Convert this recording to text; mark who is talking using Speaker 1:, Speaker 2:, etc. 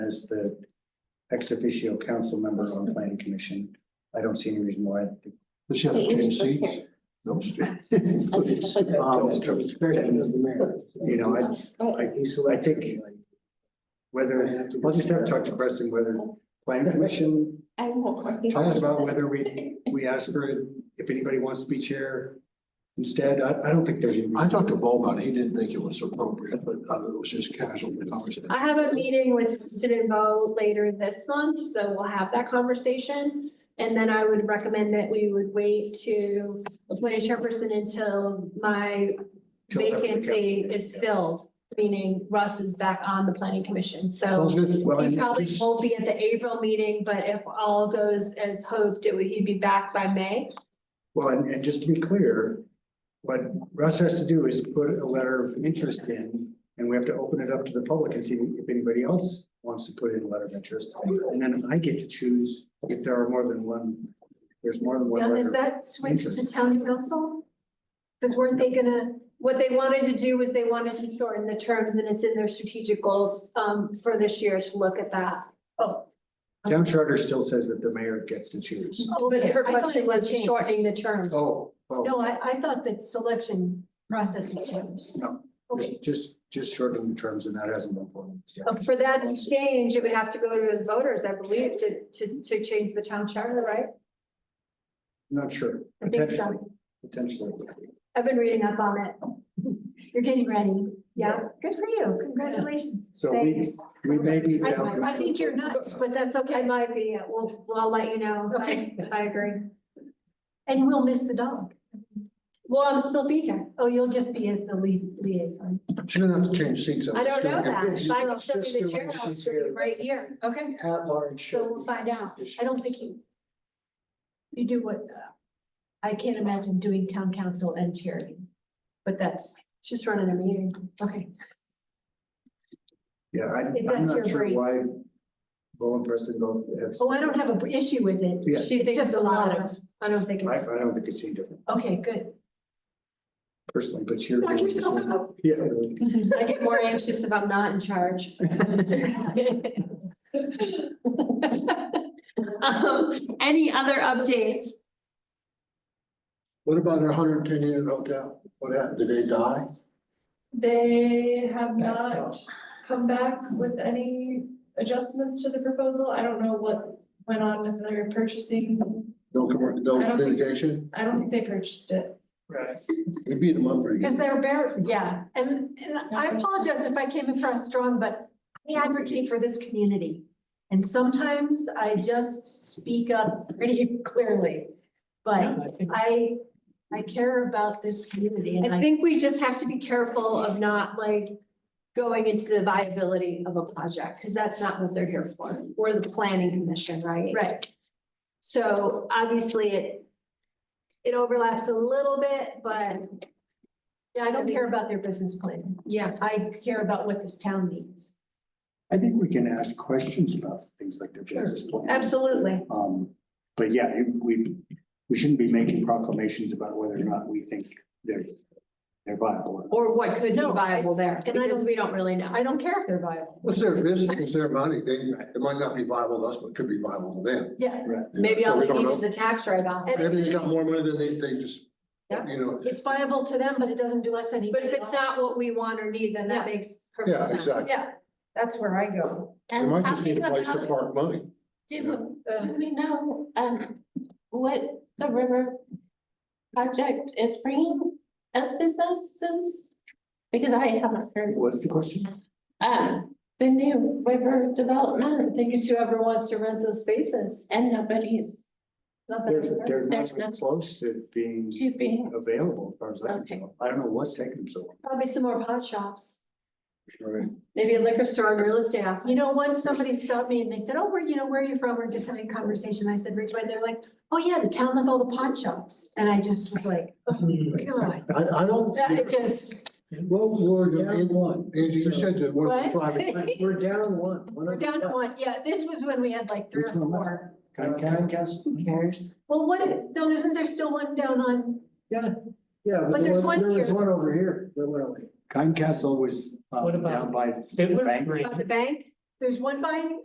Speaker 1: as the ex officio council member on planning commission. I don't see any reason why.
Speaker 2: Does she have to change seats? No. please.
Speaker 1: Um,
Speaker 3: You
Speaker 1: You know, I, I- I think Whether, I'll just have to talk to Preston whether planning commission
Speaker 3: I won't.
Speaker 1: talks about whether we, we ask for, if anybody wants to be chair. Instead, I, I don't think there's. any
Speaker 2: I
Speaker 1: reason.
Speaker 2: talked to Bob about it. He didn't think it was appropriate, but uh, it was just casual conversation.
Speaker 4: I have a meeting with Kristen and Bo later this month, so we'll have that conversation. And then I would recommend that we would wait to appoint a chairperson until my
Speaker 1: Till after the council
Speaker 4: vacancy
Speaker 1: meeting.
Speaker 4: is filled, meaning Russ is back on the planning commission, so.
Speaker 2: Sounds good.
Speaker 1: Well,
Speaker 4: He
Speaker 1: and
Speaker 4: probably
Speaker 1: just-
Speaker 4: won't be at the April meeting, but if all goes as hoped, it would, he'd be back by May.
Speaker 1: Well, and, and just to be clear, what Russ has to do is put a letter of interest in, and we have to open it up to the public and see if anybody else wants to put in a letter of interest. And then I get to choose if there are more than one, there's more than one
Speaker 4: Now,
Speaker 1: letter.
Speaker 4: is that switched to town council? Because weren't they gonna, what they wanted to do was they wanted to shorten the terms and it's in their strategic goals um for this year to look at that. Oh,
Speaker 1: Town charter still says that the mayor gets to choose.
Speaker 4: but her
Speaker 3: Oh, I thought
Speaker 4: question
Speaker 3: it
Speaker 4: was
Speaker 3: changed.
Speaker 4: shortening the terms.
Speaker 1: Oh, oh,
Speaker 3: No, I, I thought that selection process had changed.
Speaker 1: just- just, just shortening the terms and that hasn't been formed yet.
Speaker 4: Uh, For that to change, it would have to go to the voters, I believe, to to to change the town charter, right?
Speaker 1: Not sure.
Speaker 4: I think so.
Speaker 1: Potentially, potentially.
Speaker 4: I've been reading up on it.
Speaker 3: You're getting ready.
Speaker 4: Yeah, good for you. Congratulations.
Speaker 1: So we-
Speaker 4: Thanks.
Speaker 1: We may be
Speaker 3: I,
Speaker 1: down.
Speaker 3: I think you're nuts, but that's
Speaker 4: I
Speaker 3: okay.
Speaker 4: might be, uh, we'll, well, I'll let you know if I,
Speaker 3: Okay.
Speaker 4: if I agree.
Speaker 3: And we'll miss the dog.
Speaker 4: Well, I'm still be here.
Speaker 3: Oh, you'll just be as the lia- liaison.
Speaker 2: She's gonna have to change seats.
Speaker 4: I don't know
Speaker 2: It's-
Speaker 4: that, but I'll
Speaker 2: it's
Speaker 4: still be the
Speaker 2: just
Speaker 4: chair,
Speaker 2: way
Speaker 4: I'll
Speaker 2: she's
Speaker 4: still be
Speaker 2: here.
Speaker 4: right here.
Speaker 3: Okay.
Speaker 2: At large.
Speaker 4: So we'll find out.
Speaker 3: I don't think you, you do what, uh, I can't imagine doing town council and charity. But that's,
Speaker 4: Just running a meeting.
Speaker 3: okay.
Speaker 1: Yeah, I,
Speaker 3: If
Speaker 1: I'm
Speaker 3: that's your
Speaker 1: not sure
Speaker 3: brief.
Speaker 1: why Bo and Preston both have.
Speaker 3: Oh, I don't have an issue with it.
Speaker 1: Yeah.
Speaker 4: She
Speaker 3: It's
Speaker 4: thinks
Speaker 3: just
Speaker 4: a lot of, I don't think
Speaker 1: I,
Speaker 4: it's,
Speaker 1: I don't think it's any different
Speaker 3: Okay, good.
Speaker 1: personally, but you're.
Speaker 3: Knock yourself out.
Speaker 1: Yeah.
Speaker 4: I get more anxious if I'm not in charge. Um, Any other updates?
Speaker 2: What about her hundred and ten unit hotel? What happened? Did they die?
Speaker 5: They have not come back with any adjustments to the proposal. I don't know what went on with their purchasing.
Speaker 2: No, commer- no
Speaker 5: I don't think-
Speaker 2: litigation?
Speaker 5: I don't think they purchased it.
Speaker 2: We beat them up pretty
Speaker 3: Because
Speaker 2: good.
Speaker 3: they're bare, yeah, and, and I apologize if I came across strong, but I advocate for this community. And sometimes I just speak up pretty clearly, but I, I care about this community and
Speaker 4: I
Speaker 3: I,
Speaker 4: think we just have to be careful of not like going into the viability of a project, because that's not what they're here for. We're the planning commission, right?
Speaker 3: right,
Speaker 4: So obviously it, it overlaps a little bit, but
Speaker 3: yeah, I don't care about their business plan.
Speaker 4: yeah,
Speaker 3: I care about what this town needs.
Speaker 1: I think we can ask questions about things like their business plan.
Speaker 4: absolutely.
Speaker 1: Um, but yeah, you- we, we shouldn't be making proclamations about whether or not we think they're, they're viable.
Speaker 4: Or what could be
Speaker 3: No, I-
Speaker 4: viable there,
Speaker 3: and I
Speaker 4: because
Speaker 3: don't-
Speaker 4: we don't really know.
Speaker 3: I don't care if they're viable.
Speaker 2: It's their business, it's their money. They, it might not be viable to us, but it could be viable to them.
Speaker 3: Yeah,
Speaker 4: Maybe
Speaker 2: So
Speaker 4: all
Speaker 2: we
Speaker 4: they
Speaker 2: don't
Speaker 4: need
Speaker 2: know.
Speaker 4: is a tax write-off.
Speaker 3: And-
Speaker 2: Maybe they got more money than they, they just,
Speaker 3: Yeah.
Speaker 2: you know,
Speaker 3: it's viable to them, but it doesn't do us any.
Speaker 4: But if it's not what we want or need, then that
Speaker 3: Yeah.
Speaker 4: makes
Speaker 2: yeah,
Speaker 4: perfect sense.
Speaker 2: exactly.
Speaker 3: Yeah, that's where I go.
Speaker 2: They might just need a place to park money.
Speaker 6: Do,
Speaker 3: Uh,
Speaker 6: do we know, um, what the river project is bringing as businesses? Because I haven't heard,
Speaker 1: What's the question?
Speaker 6: um, the new river
Speaker 4: I
Speaker 6: development
Speaker 4: think it's whoever wants to rent those spaces.
Speaker 6: and nobody's
Speaker 4: Not
Speaker 1: They're,
Speaker 4: that-
Speaker 1: they're not
Speaker 6: There's
Speaker 1: even
Speaker 6: nothing.
Speaker 1: close to being
Speaker 6: to be,
Speaker 1: available as far as I can
Speaker 6: Okay.
Speaker 1: tell. I don't know what's taking them so
Speaker 4: Probably some more pot shops,
Speaker 1: long.
Speaker 4: maybe a liquor store and real estate office.
Speaker 3: You know, once somebody stopped me and they said, oh, where, you know, where are you from? We're just having a conversation. I said, Ridgeway. They're like, oh yeah, the town with all the pawn shops. And I just was like, oh,
Speaker 1: Mm.
Speaker 3: God.
Speaker 2: I, I don't.
Speaker 3: That it just,
Speaker 7: Well, we're down one.
Speaker 2: Angie, you said that one of the
Speaker 3: What?
Speaker 2: private.
Speaker 7: We're down one.
Speaker 3: we're down to one. Yeah, this was when we had like three or
Speaker 1: Which one?
Speaker 3: four.
Speaker 7: Uh, Comcast?
Speaker 6: who cares?
Speaker 3: Well, what is, no, isn't there still one down on,
Speaker 7: Yeah,
Speaker 3: But
Speaker 7: but
Speaker 3: there's
Speaker 7: there was,
Speaker 3: one
Speaker 7: there was
Speaker 3: here.
Speaker 7: one over here that went away.
Speaker 1: Kind Castle was, um,
Speaker 8: What about-
Speaker 1: down by the
Speaker 8: Fiddler
Speaker 1: bank.
Speaker 8: Green.
Speaker 4: About the bank?
Speaker 3: there's one by